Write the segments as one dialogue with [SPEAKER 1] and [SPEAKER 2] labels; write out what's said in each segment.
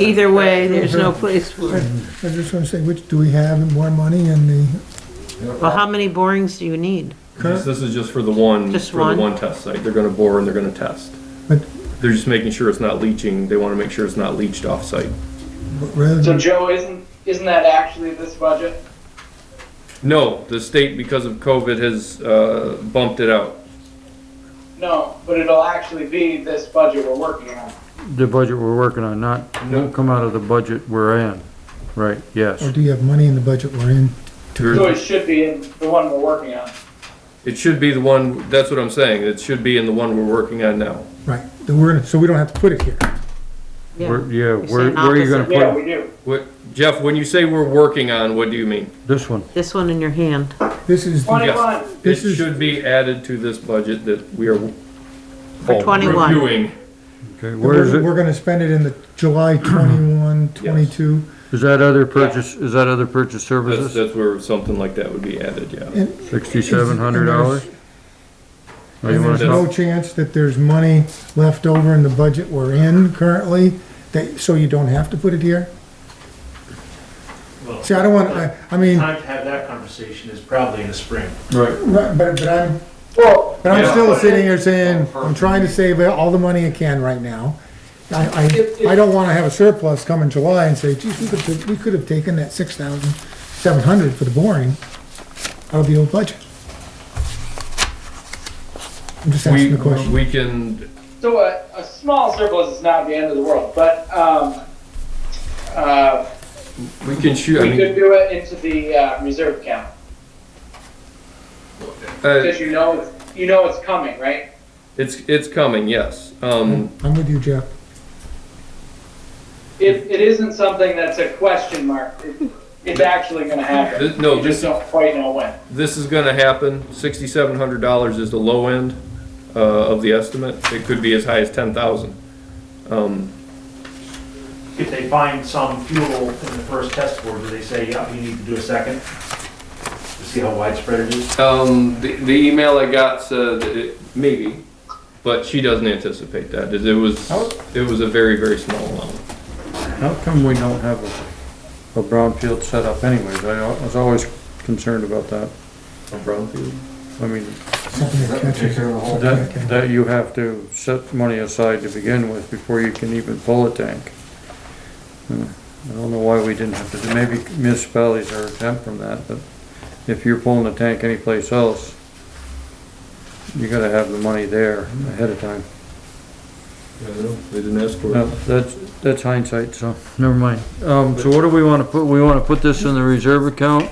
[SPEAKER 1] Either way, there's no place for,
[SPEAKER 2] I just want to say, which, do we have more money in the,
[SPEAKER 1] well, how many borings do you need?
[SPEAKER 2] Current-
[SPEAKER 3] This this is just for the one,
[SPEAKER 1] Just
[SPEAKER 3] for
[SPEAKER 1] one?
[SPEAKER 3] the one test site. They're gonna bore and they're gonna test.
[SPEAKER 2] but
[SPEAKER 3] They're just making sure it's not leaching. They wanna make sure it's not leached off-site.
[SPEAKER 2] rather
[SPEAKER 4] So
[SPEAKER 2] than,
[SPEAKER 4] Joe, isn't isn't that actually this budget?
[SPEAKER 3] No, the state, because of COVID, has, uh, bumped it out.
[SPEAKER 4] No, but it'll actually be this budget we're working on.
[SPEAKER 5] The budget we're working on, not,
[SPEAKER 3] No.
[SPEAKER 5] won't come out of the budget we're in, right,
[SPEAKER 2] or
[SPEAKER 5] yes.
[SPEAKER 2] do you have money in the budget we're in?
[SPEAKER 4] So
[SPEAKER 3] There-
[SPEAKER 4] it should be in the one we're working on.
[SPEAKER 3] It should be the one, that's what I'm saying. It should be in the one we're working on now.
[SPEAKER 2] Right, then we're gonna, so we don't have to put it here.
[SPEAKER 1] Yeah.
[SPEAKER 5] We're- Yeah, where,
[SPEAKER 1] saying
[SPEAKER 5] where are you gonna
[SPEAKER 4] Yeah,
[SPEAKER 5] put
[SPEAKER 4] we do.
[SPEAKER 3] What, Jeff, when you say we're working on, what do you mean?
[SPEAKER 5] this one?
[SPEAKER 1] This one in your hand.
[SPEAKER 2] This is, the-
[SPEAKER 4] Twenty-one.
[SPEAKER 3] It
[SPEAKER 2] This is-
[SPEAKER 3] should be added to this budget that we are.
[SPEAKER 1] For 21.
[SPEAKER 3] Reviewing.
[SPEAKER 5] Okay, where is
[SPEAKER 2] we're,
[SPEAKER 5] it?
[SPEAKER 2] we're gonna spend it in the July 21, 22.
[SPEAKER 5] Is that other purchase, is that other purchase
[SPEAKER 3] That's,
[SPEAKER 5] services?
[SPEAKER 3] that's where something like that would be added, yeah.
[SPEAKER 2] And-
[SPEAKER 5] Sixty-seven hundred dollars? Or Oh, you
[SPEAKER 2] And
[SPEAKER 5] wanna
[SPEAKER 2] there's no
[SPEAKER 5] talk?
[SPEAKER 2] chance that there's money left over in the budget we're in currently, that, so you don't have to put it here?
[SPEAKER 6] Well,
[SPEAKER 2] See, I don't want, I, I mean, right,
[SPEAKER 6] Time to have that conversation is probably in the spring.
[SPEAKER 3] Right.
[SPEAKER 2] but, but I'm,
[SPEAKER 4] Well,
[SPEAKER 2] but I'm
[SPEAKER 3] Yeah.
[SPEAKER 2] still sitting here saying, I'm trying to save all the money I can right now. I,
[SPEAKER 4] If- if-
[SPEAKER 2] I, I don't wanna have a surplus come in July and say, geez, we could, we could have taken that six thousand seven hundred for the boring out of the old budget. I'm just
[SPEAKER 3] We,
[SPEAKER 2] asking the question.
[SPEAKER 3] we can,
[SPEAKER 4] so a, a small surplus is not the end of the world, but um, uh,
[SPEAKER 3] we can shoot, I
[SPEAKER 4] we could
[SPEAKER 3] mean,
[SPEAKER 4] do it into the uh, reserve account
[SPEAKER 3] uh,
[SPEAKER 4] because you know it's, you know it's coming, right?
[SPEAKER 3] it's, it's coming, yes. Um,
[SPEAKER 2] I'm with you, Jeff.
[SPEAKER 4] It, it isn't something that's a question mark. It, it's actually going to happen.
[SPEAKER 3] Th- no,
[SPEAKER 4] you just
[SPEAKER 3] this-
[SPEAKER 4] don't quite know when.
[SPEAKER 3] this is gonna happen. Sixty-seven hundred dollars is the low end, uh, of the estimate. It could be as high as ten thousand. Um,
[SPEAKER 6] If they find some fuel in the first test board, do they say, yeah, we need to do a second? To see how widespread it is?
[SPEAKER 3] um, the, the email I got said it- maybe, but she doesn't anticipate that. It was, it was a very, very small amount.
[SPEAKER 5] How come we don't have a, a brownfield set up anyways? I al- I was always concerned about that.
[SPEAKER 3] A brownfield?
[SPEAKER 5] I mean,
[SPEAKER 2] Something that catches.
[SPEAKER 5] That, that you have to set money aside to begin with before you can even pull a tank. Hmm. I don't know why we didn't have to, do- maybe municipalities are exempt from that, but if you're pulling a tank anyplace else, you gotta have the money there ahead of time.
[SPEAKER 3] I don't know. They didn't ask for it.
[SPEAKER 5] No, that's, that's hindsight, so, never mind. Um, so what do we wanna put, we wanna put this in the reserve account?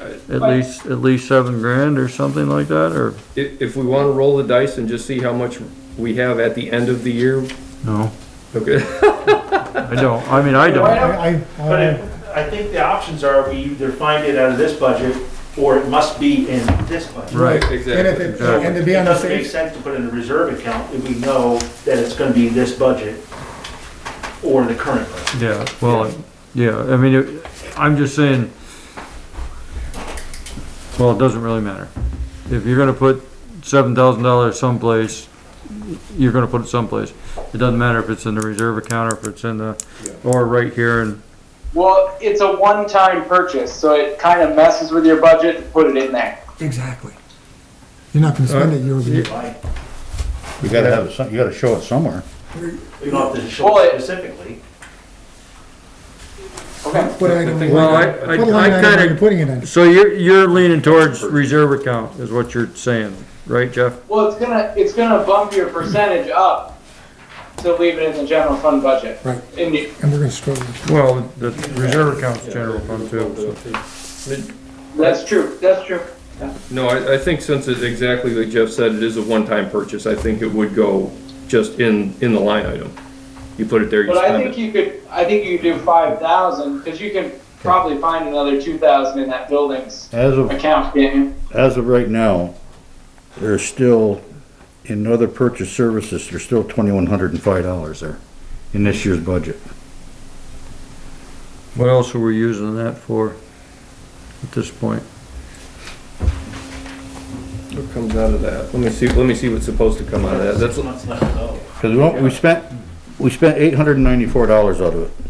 [SPEAKER 5] At least, at least seven grand or something like that, or?
[SPEAKER 3] If, if we want to roll the dice and just see how much we have at the end of the year,
[SPEAKER 5] No,
[SPEAKER 3] okay.
[SPEAKER 5] I don't, I mean, I don't.
[SPEAKER 2] I, I,
[SPEAKER 6] But
[SPEAKER 2] I,
[SPEAKER 6] it- I think the options are we either find it out of this budget or it must be in this budget.
[SPEAKER 5] Right.
[SPEAKER 2] and if it,
[SPEAKER 5] Exactly.
[SPEAKER 2] and to be
[SPEAKER 6] It
[SPEAKER 2] on the
[SPEAKER 6] doesn't make
[SPEAKER 2] safe,
[SPEAKER 6] sense to put in a reserve account if we know that it's gonna be this budget or the current budget.
[SPEAKER 5] Yeah, well, yeah, I mean, it- I'm just saying, well, it doesn't really matter. If you're gonna put seven thousand dollars someplace, you're gonna put it someplace. It doesn't matter if it's in the reserve account or if it's in the, or right here and,
[SPEAKER 4] Well, it's a one-time purchase, so it kind of messes with your budget to put it in there.
[SPEAKER 2] exactly. You're not gonna spend it year over year.
[SPEAKER 6] Right.
[SPEAKER 7] You gotta have, it some- you gotta show it somewhere.
[SPEAKER 6] We don't have to show
[SPEAKER 4] Well,
[SPEAKER 6] it
[SPEAKER 4] it-
[SPEAKER 6] specifically.
[SPEAKER 4] Okay.
[SPEAKER 2] What item,
[SPEAKER 3] thing-
[SPEAKER 2] what
[SPEAKER 5] well, I,
[SPEAKER 2] line
[SPEAKER 5] I, I
[SPEAKER 2] item are you
[SPEAKER 5] kinda,
[SPEAKER 2] putting it in?
[SPEAKER 5] so you're, you're leaning towards reserve account is what you're saying, right, Jeff?
[SPEAKER 4] Well, it's gonna, it's gonna bump your percentage up to leave it in the general fund budget.
[SPEAKER 2] Right.
[SPEAKER 4] And you,
[SPEAKER 2] And we're gonna struggle.
[SPEAKER 5] Well, the reserve account's general fund too, so.
[SPEAKER 4] that's true, that's true.
[SPEAKER 3] No, I, I think since it's exactly like Jeff said, it is a one-time purchase, I think it would go just in, in the line item. You put it there, you
[SPEAKER 4] But I
[SPEAKER 3] spend
[SPEAKER 4] think
[SPEAKER 3] it.
[SPEAKER 4] you could, I think you could do five thousand, because you can probably find another two thousand in that building's
[SPEAKER 7] As of,
[SPEAKER 4] account, can't you?
[SPEAKER 7] as of right now, there's still, in other purchase services, there's still twenty-one hundred and five dollars there in this year's budget.
[SPEAKER 5] What else are we using that for at this point?
[SPEAKER 3] What comes out of that? Let me see, let me see what's supposed to come out of that. Uh, That's,
[SPEAKER 6] Six months left to go.
[SPEAKER 7] Cause we, don't- we spent, we spent eight hundred and ninety-four dollars out of it.